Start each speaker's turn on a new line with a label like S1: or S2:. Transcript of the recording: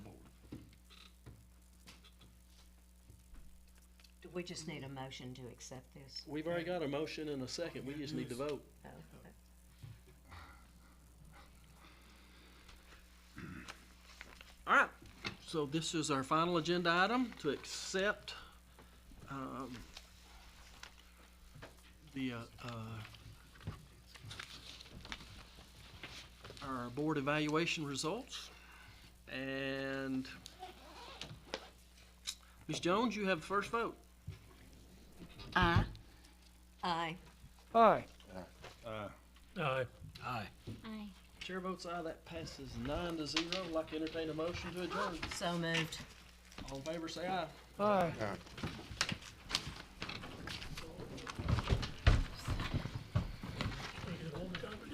S1: we just need a motion to accept this.
S2: We've already got a motion and a second, we just need to vote.
S1: Oh, okay.
S2: All right, so this is our final agenda item to accept, um, the, uh, uh, our board evaluation results. And Ms. Jones, you have the first vote.
S1: Aye. Aye.
S3: Aye.
S4: Aye.
S2: Aye.
S5: Aye.
S2: Chair votes aye, that passes nine to zero. I'd Like to entertain a motion to adjourn.
S1: So moved.
S2: All in favor, say aye.
S3: Aye.